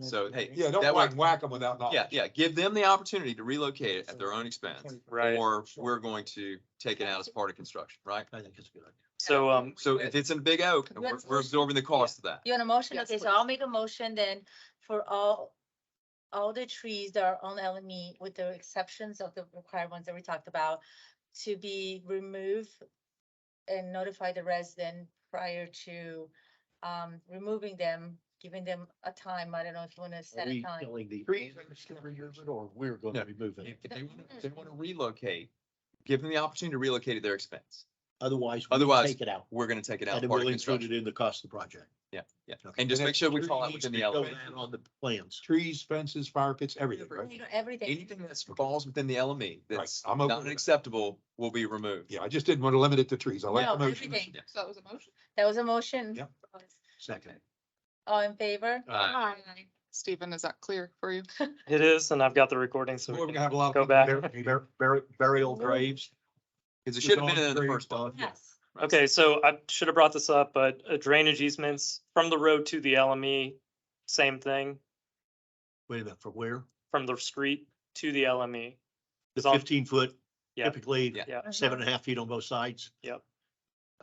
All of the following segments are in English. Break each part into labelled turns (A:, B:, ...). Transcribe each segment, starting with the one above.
A: So, hey,
B: Yeah, don't
A: That
B: whack,
A: way-
B: whack them without knowledge.
A: yeah, yeah, give them the opportunity to relocate it at their own expense.
C: Right.
A: Or we're going to take it out as part of construction, right?
D: I think it's a good idea.
C: So, um,
A: So if it's in Big Oak,
E: You
A: we're,
E: want-
A: we're absorbing the cost of that.
E: You want a motion?
F: Yes,
E: Okay, so I'll
F: please.
E: make a motion then for all, all the trees that are on LME with the exceptions of the required ones that we talked about to be removed and notify the resident prior to um, removing them, giving them a time. I don't know if you want to
D: Are
E: set a
D: we
E: time.
D: telling the
C: Three.
D: owners to remove it, Or we're going
A: No.
D: to remove it.
A: If they, wanna- if they want
E: Mm-hmm.
A: to relocate, give them the opportunity to relocate at their expense.
D: Otherwise. we
A: Otherwise-
D: Take it out.
A: We're going to take it
D: And
A: out as
D: then
A: part of
D: we'll include it
A: construction.
D: in the cost of the project.
A: Yeah.
D: Okay.
A: And just
B: And
A: make sure we
B: that's-
A: fall out
B: Trees
A: within the
B: go
A: element.
B: in
D: On the plans.
B: Trees, fences, fire pits, everything, right?
E: You know, Everything.
A: Anything that falls within the LME that's
B: I'm okay
A: not
B: with that.
A: acceptable will be removed.
B: Yeah, I just didn't want to limit it to trees. I like
E: No,
B: the motion.
E: everything.
A: Yes.
F: So that was a motion?
E: That was a motion.
B: Yep.
D: Second.
E: All in favor?
A: Uh,
F: Aye. Stephen, is that clear for you?
C: it is, and I've got the recording, so
B: Boy,
C: we
B: We're
C: can
B: gonna have a lot
C: go
B: of.
C: back.
B: bur- bur- Burial graves.
A: Cause it should have been in the first one.
E: Yes.
C: Okay, so I should have brought this up, but uh, drainage easements from the road to the LME, same thing,
D: Wait a minute, for where?
C: from the street to the E. LME.
D: The
C: It's on-
D: fifteen foot,
C: Yeah.
D: typically
A: Yeah.
C: Yeah.
D: seven and a half feet on both sides.
C: Yep.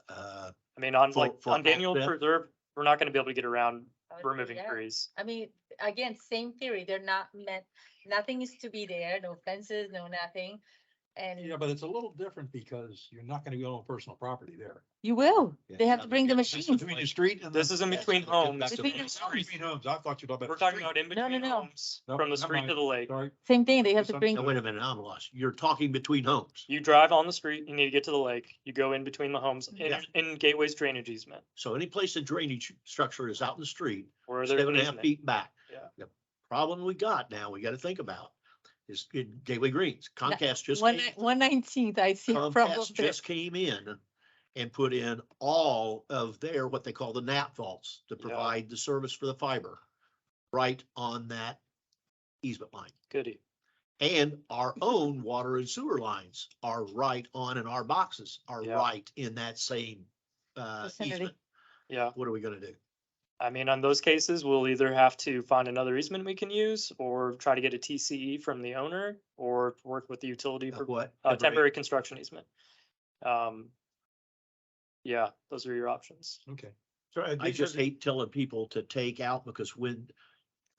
D: Uh,
C: I mean, on
D: For-
C: like,
D: for
C: on Daniel
D: access?
C: Preserve, we're not gonna be able to get around
E: I would say
C: removing
E: yes.
C: trees.
E: I mean, again, same theory. They're not meant, nothing is to be there, no fences, no nothing. And
B: Yeah, but it's a little different because you're not gonna go on personal property there.
E: you will.
D: Yeah.
E: They have to bring the
D: This is
E: machines.
D: between
B: the street and.
C: This is in between homes.
D: Between
C: Between
E: the
C: streets.
B: Between homes, I thought you were talking about.
C: We're talking about in
E: No, no,
C: between
E: no.
C: homes,
B: Nope,
C: from the
B: never
C: street to
B: mind.
C: the lake.
B: Sorry.
E: Same thing, they have to
B: Some-
E: bring,
D: now wait a minute, I'm lost. You're talking between homes.
C: You drive on the street, you need to get to the lake, you go in between the homes, in,
D: Yeah.
C: in Gateway's drainage easement,
D: So any place the drainage structure is out in the street,
C: where there's
D: seven
C: an
D: and a half
C: easement.
D: feet back.
C: Yeah.
D: The problem we got now, we gotta think about is in Gateway Greens, Comcast just.
E: one,
D: came-
E: one nineteenth, I see a problem
D: Comcast
E: there.
D: just came in and put in all of their, what they call the nap vaults to
C: Yeah.
D: provide the service for the fiber. Right on that easement line.
C: Goody.
D: And our
C: Mm-hmm.
D: own water and sewer lines are right on and our boxes are
C: Yeah.
D: right in that same uh
E: Vicinity.
D: easement.
C: Yeah,
D: What are we gonna do?
C: I mean, on those cases, we'll either have to find another easement we can use or try to get a TCE from the owner or work with the utility
D: Of
C: for
D: What?
C: uh,
D: Every-
C: temporary construction easement. Um, yeah, those are your options.
B: Okay.
C: uh,
D: I just hate telling people to take out because when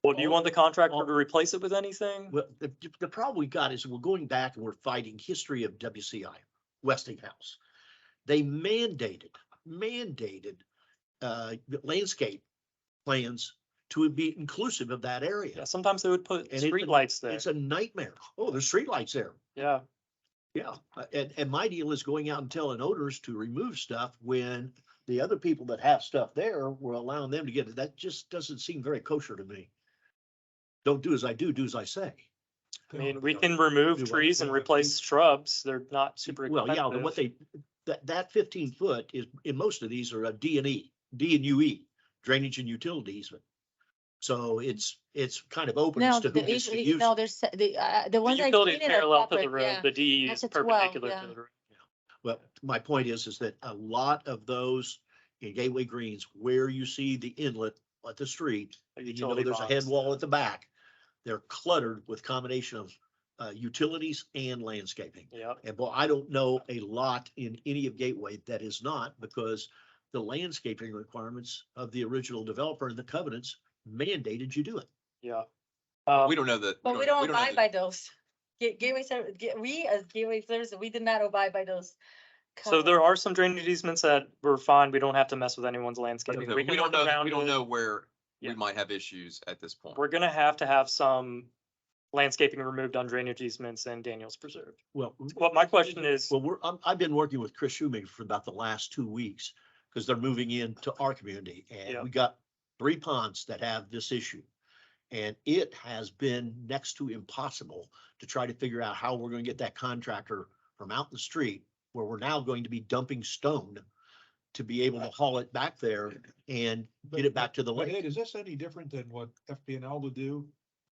C: Well, do you want the contractor
D: Well-
C: to replace it with anything?
D: Well, the, the problem we got is we're going back and we're fighting history of WCI, Westinghouse. They mandated, mandated, uh, landscape plans to be inclusive of that
C: Yeah,
D: area.
C: sometimes they would put
D: And it's a-
C: streetlights there.
D: It's a nightmare. Oh, there's streetlights there.
C: Yeah,
D: Yeah, uh, and, and my deal is going out and telling owners to remove stuff when the other people that have stuff there, we're allowing them to get it. That just doesn't seem very kosher to me. Don't do as I do, do as I say.
C: I mean, we can remove
D: Do what?
C: trees and replace shrubs. They're not super
D: Well, yeah, but
C: expensive.
D: what they, that, that fifteen foot is, in most of these are a D and E, D and U E, drainage and utilities. but- So it's, it's kind of open
E: No,
D: as to who
E: the E,
D: gets to
E: issue,
D: use.
E: no,
D: it.
E: there's, the, uh, the
C: The
E: ones I
C: utility is
E: did
C: parallel
E: are
C: to the
E: separate,
C: road.
E: yeah.
C: The DE is
E: That's a 12,
C: perpendicular
E: yeah.
C: to the road.
D: Well, my point is, is that a lot of those in Gateway Greens, where you see the inlet at the street,
C: The
D: and you know,
C: utility
D: there's a
C: box.
D: head wall at the back. They're cluttered with combination of, uh, utilities and landscaping.
C: Yep.
D: And boy, I don't know a lot in any of Gateway that is not because the landscaping requirements of the original developer and the covenants mandated you do it.
C: Yeah.
A: We
C: Um,
A: don't know that.
E: But we don't
A: know that-
E: abide by those. Ga- Gateway, ser- ga- we as gateway services, we did not abide by those.
C: So there
E: covenants.
C: are some drainage easements that were fine. We don't have to mess with anyone's landscaping.
A: no,
C: We
A: We
C: can
A: don't
C: work
A: know, that-
C: around
A: we don't
C: it.
A: know where we
C: Yeah.
A: might have issues at this point.
C: We're gonna have to have some landscaping removed on drainage easements and Daniels Preserve.
D: Well.
C: Well, my question is,
D: Well, we're, I'm, I've been working with Chris Shoemaker for about the last two weeks because they're moving into our community
C: Yeah.
D: and we got three ponds that have this issue. And it has been next to impossible to try to figure out how we're going to get that contractor from out in the street where we're now going to be dumping stone to be able to haul it back there and get it back to the
B: But
D: lake.
B: Ed, is this any different than what FPNL would do?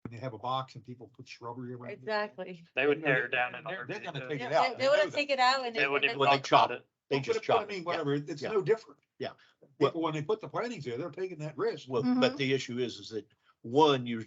B: When they have a box and people put shrubbery around it?
E: Exactly.
C: they would
B: You know,
C: tear it down and.
B: they're- they're gonna take
E: Yeah,
B: it out,
E: They
B: I
E: they
B: know
E: wanna
B: that.
E: take it out and.
C: They wouldn't
E: and
C: even
D: Well,
E: then-
D: they
C: talk
D: chop
C: about it.
D: They
B: Well, but
D: just
B: it- but
D: chop
B: I mean,
D: it, yeah.
B: whatever, it's
D: yeah.
B: no different.
D: Yeah.
B: People, when they put the plantings there, they're taking that risk.
D: Well, but the issue is, is that One, you're